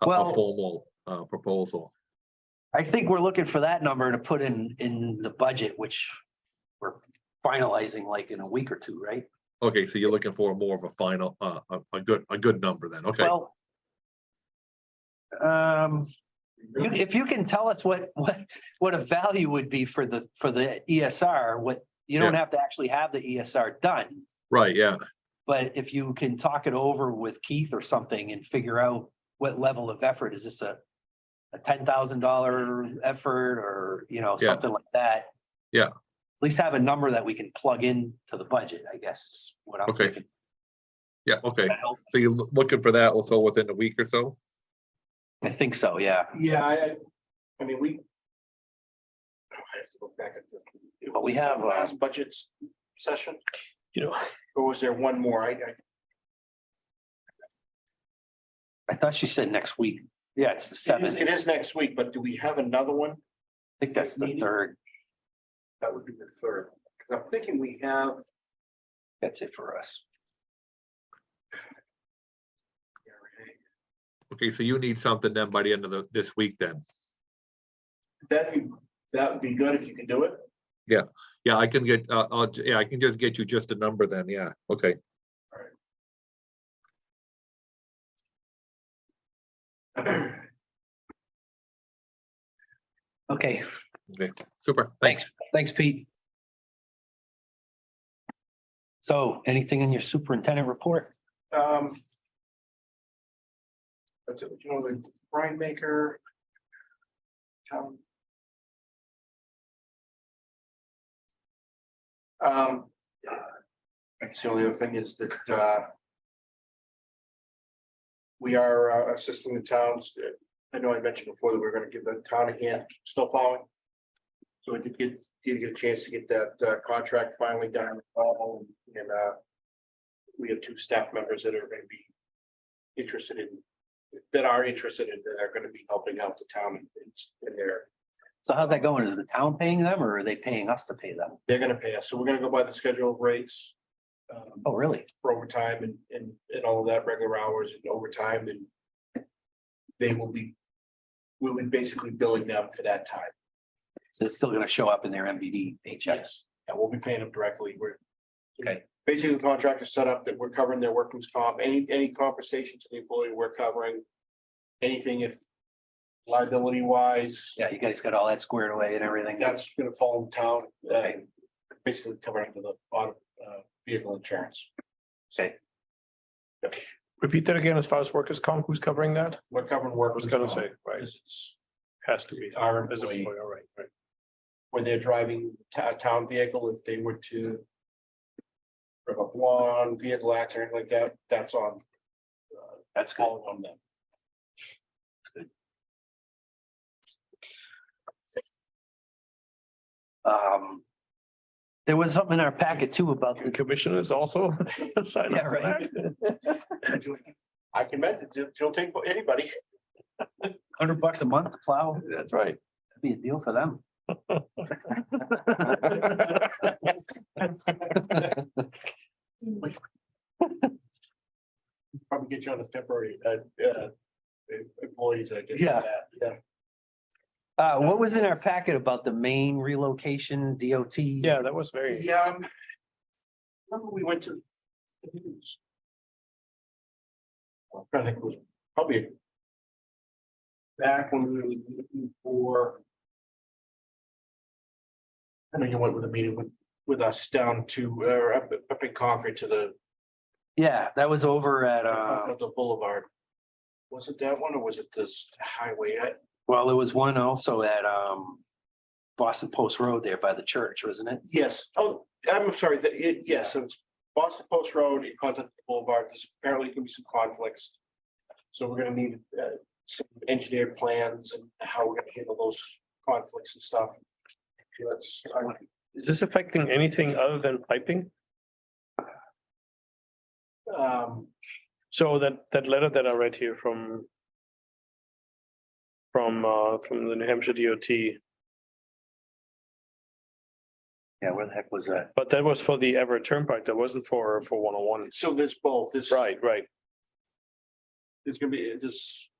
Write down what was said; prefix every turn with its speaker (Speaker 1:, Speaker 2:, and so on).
Speaker 1: a-
Speaker 2: Well-
Speaker 1: a formal uh, proposal.
Speaker 2: I think we're looking for that number to put in, in the budget, which we're finalizing like in a week or two, right?
Speaker 1: Okay, so you're looking for more of a final, uh, a, a good, a good number then, okay?
Speaker 2: Well. Um, you, if you can tell us what, what, what a value would be for the, for the ESR, what, you don't have to actually have the ESR done.
Speaker 1: Right, yeah,
Speaker 2: But if you can talk it over with Keith or something and figure out what level of effort, is this a, a ten thousand dollar effort or, you know,
Speaker 1: Yeah.
Speaker 2: something like that?
Speaker 1: Yeah.
Speaker 2: At least have a number that we can plug in to the budget, I guess, is what I'm
Speaker 1: Okay.
Speaker 2: thinking.
Speaker 1: yeah, okay.
Speaker 2: That help?
Speaker 1: So you're loo- looking for that also within a week or so?
Speaker 2: I think so, yeah.
Speaker 3: Yeah, I, I- I mean, we. I have to look back at the. it
Speaker 2: But we
Speaker 3: was
Speaker 2: have, uh,
Speaker 3: the Last budget session.
Speaker 2: You know-
Speaker 3: Or was there one more? I, I,
Speaker 2: I thought she said next week. Yeah, it's the
Speaker 3: it is,
Speaker 2: seventh. I
Speaker 3: it is next week, but do we have another one?
Speaker 2: think that's the third.
Speaker 3: That would be the third, because I'm thinking we have.
Speaker 2: That's it for us.
Speaker 1: Okay, so you need something then by the end of the, this week then?
Speaker 3: That'd be, that would be good if you can do it.
Speaker 1: Yeah, I can get, uh, I'll, j- yeah, I can just get you just a number then, yeah, okay.
Speaker 2: Okay,
Speaker 1: Super, thanks.
Speaker 2: thanks. Thanks, Pete. So anything in your superintendent report?
Speaker 3: Um. but, uh, You know, the brine maker. town- Um. Actually, the only other thing is that, uh. We are uh, assisting the towns. I know I mentioned before that we're gonna give the town a hand snow plowing. So I did get, did get a chance to get that uh, contract finally done, um, and, uh we have two staff members that are gonna be interested in, that are interested in, that are gonna be helping out the town in- in their,
Speaker 2: So how's that going? Is the town paying them or are they paying us to pay them?
Speaker 3: they're gonna pay us. So we're gonna go by the schedule of rates um,
Speaker 2: Oh, really?
Speaker 3: for overtime and, and, and all of that, regular hours and overtime and they will be, we'll be basically billing them for that time.
Speaker 2: So it's still gonna show up in their MVD paychecks?
Speaker 3: Yes, and we'll be paying them directly, we're.
Speaker 2: Okay.
Speaker 3: Basically, the contract is set up that we're covering their workman's comp, any, any compensation to the employee, we're covering. Anything if liability wise,
Speaker 2: Yeah, you guys got all that squared away and everything?
Speaker 3: that's gonna fall in town, uh,
Speaker 2: Okay.
Speaker 3: basically covering the auto, uh, vehicle insurance.
Speaker 2: Okay.
Speaker 4: Repeat that again, as far as workers' comp, who's covering that?
Speaker 3: We're covering
Speaker 4: I was
Speaker 3: workers.
Speaker 4: gonna say, right, has to be.
Speaker 3: Our
Speaker 4: As a
Speaker 3: employee.
Speaker 4: employer, right, right.
Speaker 3: when they're driving a town vehicle, if they were to. Rip up lawn, vehicle accident like that, that's on, uh,
Speaker 2: That's good.
Speaker 3: all on them.
Speaker 2: Um, there was something in our packet too about
Speaker 4: The
Speaker 2: the,
Speaker 4: commissioners also. sign up
Speaker 2: Yeah,
Speaker 4: for
Speaker 2: right.
Speaker 4: that.
Speaker 3: I can bet it, she'll take anybody.
Speaker 2: hundred bucks a month to plow,
Speaker 4: That's right.
Speaker 2: that'd be a deal for them.
Speaker 3: Probably get you on a temporary, uh, uh, employees, I guess.
Speaker 2: Yeah.
Speaker 3: Yeah.
Speaker 2: Uh, what was in our packet about the main relocation DOT?
Speaker 4: Yeah, that was very,
Speaker 3: Yeah. um, Remember we went to. I'm trying to think, it was probably. Back when we were looking for. I know you went with a meeting with, with us down to, uh, up, up in Concord to the
Speaker 2: Yeah, that was over at, uh,
Speaker 3: Continental Boulevard. Was it that one or was it this highway? I-
Speaker 2: well, there was one also at, um, Boston Post Road there by the church, wasn't it?
Speaker 3: Yes, oh, I'm sorry, the, it- yes, so it's Boston Post Road and Continental Boulevard, there's apparently gonna be some conflicts. So we're gonna need uh some engineered plans and how we're gonna handle those conflicts and stuff. That's, I-
Speaker 4: is this affecting anything other than piping?
Speaker 3: um,
Speaker 4: So that, that letter that I read here from from, uh, from the New Hampshire DOT,
Speaker 2: Yeah, where the heck was that?
Speaker 4: but that was for the Everett Turnpike, that wasn't for, for one oh one.
Speaker 3: so there's both, there's,
Speaker 4: Right, right.
Speaker 3: there's gonna be, there's